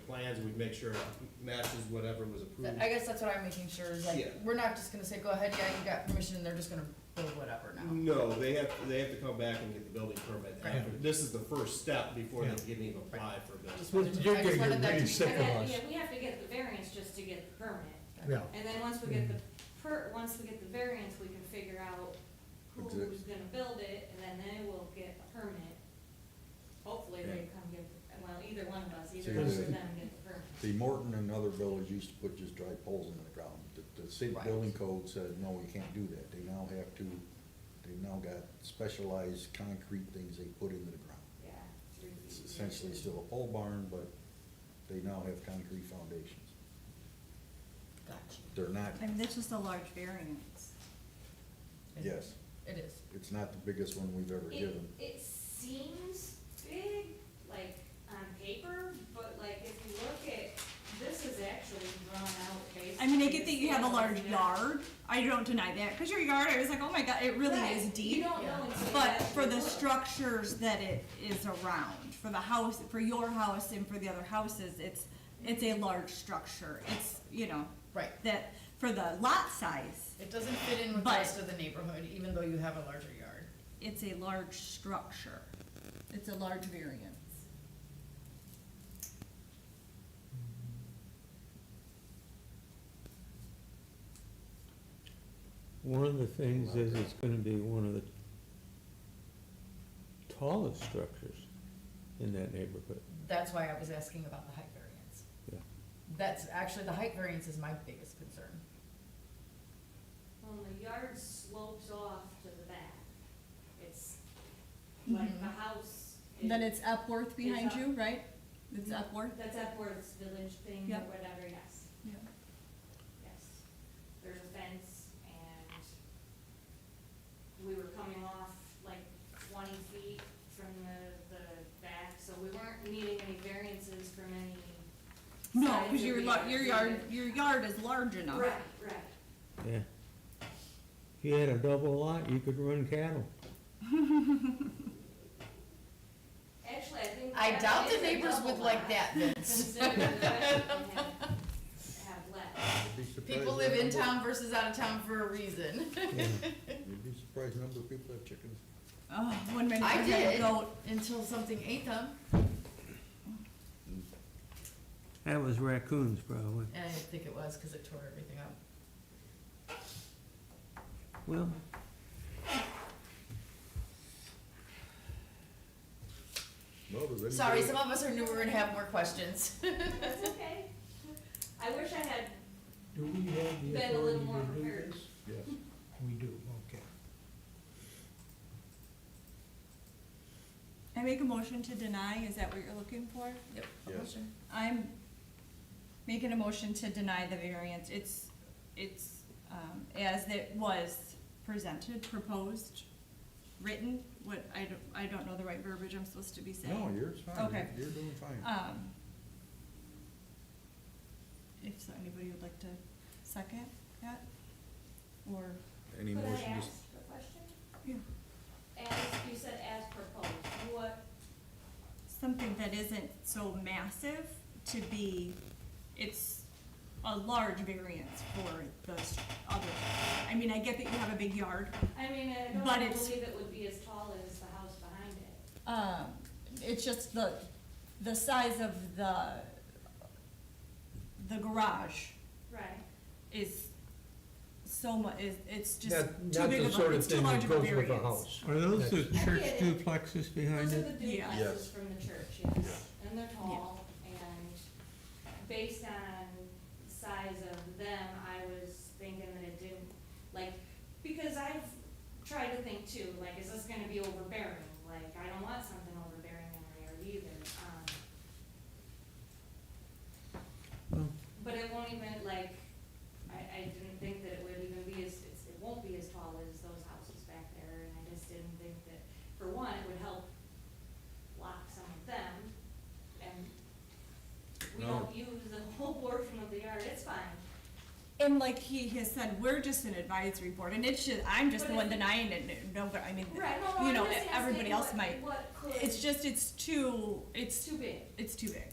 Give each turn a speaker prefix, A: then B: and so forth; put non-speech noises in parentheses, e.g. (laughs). A: plans, we'd make sure it matches whatever was approved.
B: I guess that's what I'm making sure is
A: Mm. Yeah.
B: like, we're not just gonna say, go ahead, yeah, you got permission, and they're just gonna build whatever now.
A: No, they have, they have to come back and get the building permit after, this is the first step before they can even apply for a building.
B: Well,
C: You're
B: I just wanted
C: getting
B: that to
C: really
B: be
C: sick
B: clear.
C: of
D: And then,
C: us.
D: yeah, we have to get the variance just to get the permit.
C: Yeah.
D: And then once we get the per, once we get the variance, we can figure out who's gonna build it, and then they will get a permit. Hopefully they come get, well, either one of us, either one of them get the permit.
E: See, Morton and other villages used to put just dry poles in the ground. The- The city
B: Right.
E: building code said, no, we can't do that. They now have to, they've now got specialized concrete things they put into the ground.
D: Yeah. three feet.
E: It's essentially still a pole barn, but they now have concrete foundations.
B: Gotcha.
E: They're not,
F: I mean, that's just a large variance.
E: yes,
B: It is.
E: it's not the biggest one we've ever
D: It,
E: given.
D: it seems big, like on paper, but like if you look at, this is actually drawn out basically.
F: I mean, I get that you have a large yard. I don't deny that, because your yard, I was like, oh my god, it really
D: Right.
F: is
D: You
F: deep.
D: don't know until you
F: But
D: actually
F: for the
D: look.
F: structures that it is around, for the house, for your house and for the other houses, it's, it's a large structure. It's, you know.
B: Right.
F: That, for the lot size,
B: It doesn't fit in with the
F: But-
B: rest of the neighborhood, even though you have a larger yard.
F: it's a large structure. It's a large variance.
G: One of the things is it's gonna be one of the tallest structures in that neighborhood.
B: That's why I was asking about the height variance.
G: Yeah.
B: That's, actually, the height variance is my biggest concern.
D: Well, the yard slopes off to the back. It's like the house. is-
F: Mm-hmm. Then it's Epworth behind
D: It's up.
F: you, right? It's Epworth?
D: That's Epworth's village thing or
F: Yep.
D: whatever, yes,
F: Yeah.
D: yes. There's a fence and we were coming off like twenty feet from the, the back, so we weren't needing any variances from any.
F: No,
D: sides
F: because
D: of
F: your,
D: the
F: lo- your yard,
D: either.
F: your yard is large enough.
D: Right, right.
G: Yeah. If you had a double lot, you could run cattle.
D: Actually, I think.
B: I
D: that
B: doubt the
D: is a
B: neighbors would
D: double
B: like
D: lot,
B: that, Vince.
D: (laughs) Considering the fact that we have- have less.
E: You'd be surprised
B: People live in
E: the number-
B: town versus out of town for a reason. (laughs)
E: You'd be surprised the number of people have chickens.
F: Oh, one minute
B: I
F: I had a
B: did,
F: goat.
B: until something ate them,
G: That was raccoons, probably.
B: and I think it was because it tore everything up.
G: Well,
E: No, does anybody-
B: Sorry, some of us are newer and have more questions.
D: That's okay. I wish I had,
C: Do we have the
D: Been a little
C: authority
D: more
C: to do
D: prepared.
C: this?
E: Yes.
C: We do, okay.
F: I make a motion to deny, is that what you're looking for?
B: Yep.
E: Yes.
B: Motion.
F: I'm making a motion to deny the variance. It's, it's, um, as it was presented, proposed, written, what, I don't, I don't know the right verbiage I'm supposed to be saying.
E: No, yours fine. You're-
F: Okay.
E: You're doing fine.
F: Um, if so, anybody would like to second that? Or,
E: Any
D: could I
E: motion? to-
D: ask a question?
F: yeah,
D: As, you said as proposed, what,
F: something that isn't so massive to be, it's a large variance for the s- other. I mean, I get that you have a big yard.
D: I mean, I
F: But
D: don't
F: it's-
D: believe it would be as tall as the house behind it.
F: Um, it's just the, the size of the, the garage
D: Right.
F: is so mu, is, it's just
C: Not-
F: too
C: not
F: big
C: the
F: of
C: sort
F: a,
C: of
F: it's too
C: thing that
F: large of a
C: goes with
F: variance.
C: a house.
G: are those the
C: That's-
G: church duplexes behind
D: Those are
G: it?
D: the
E: Yes.
F: Yeah.
D: duplexes from the church, yes. And they're tall, and based on size of them, I was thinking that it didn't, like, because I've tried to think too, like, is this gonna be overbearing? Like, I don't want something overbearing in my yard either. um,
G: Well,
D: But it won't even, like, I, I didn't think that it would even be as, it's- it won't be as tall as those houses back there, and I just didn't think that, for one, it would help block some of them, and we
E: No.
D: don't use the whole portion of the yard, it's
F: (laughs)
D: fine.
F: And like he has said, we're just an advisory board, and it's just, I'm just the one denying it, no, but I mean,
D: Right, no, no,
F: you know,
D: I'm just
F: everybody
D: asking
F: else
D: what-
F: might.
D: what could-
F: It's just, it's too,
D: It's
F: it's,
D: too big.
F: it's too big.